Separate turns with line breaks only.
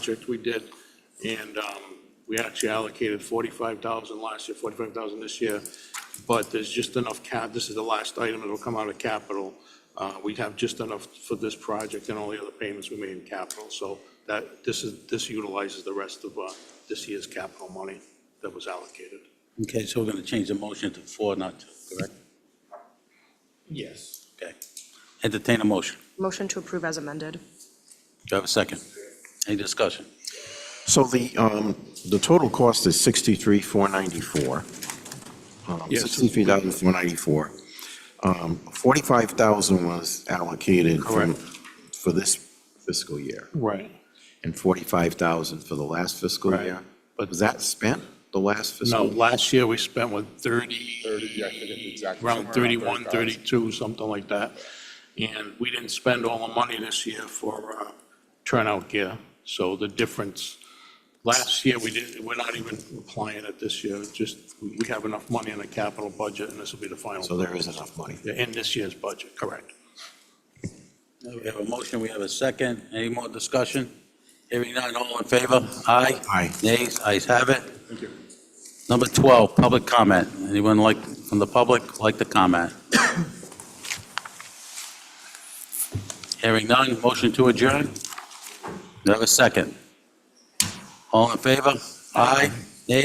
project we did, and um, we actually allocated 45,000 last year, 45,000 this year, but there's just enough cap, this is the last item that'll come out of capital. Uh, We have just enough for this project and all the other payments we made in capital, so that, this is, this utilizes the rest of uh, this year's capital money that was allocated.
Okay, so we're going to change the motion to four, not two, correct?
Yes.
Okay. Entertain a motion.
Motion to approve as amended.
Do I have a second? Any discussion?
So the, um, the total cost is 63,494. Um,
Yes.
63,494. Um, 45,000 was allocated from, for this fiscal year,
Right.
and 45,000 for the last fiscal
Right.
year. But was that spent, the last
No,
fiscal?
last year we spent what, 30?
30, I forget the exact- somewhere
Around
around
31,
30,000.
32, something like that. And we didn't spend all the money this year for uh, turnout gear. So the difference, last year, we didn't, we're not even applying it this year. It's Just, we we have enough money in the capital budget and this will be the final.
So there is enough money.
In this year's budget, correct.
We have a motion, we have a second. Any more discussion? Hearing none, all in favor? Aye.
Aye.
Nays, ayes have it. Number 12, public comment. Anyone like, from the public, like to comment? Hearing none, motion to adjourn. Do I have a second? All in favor? Aye.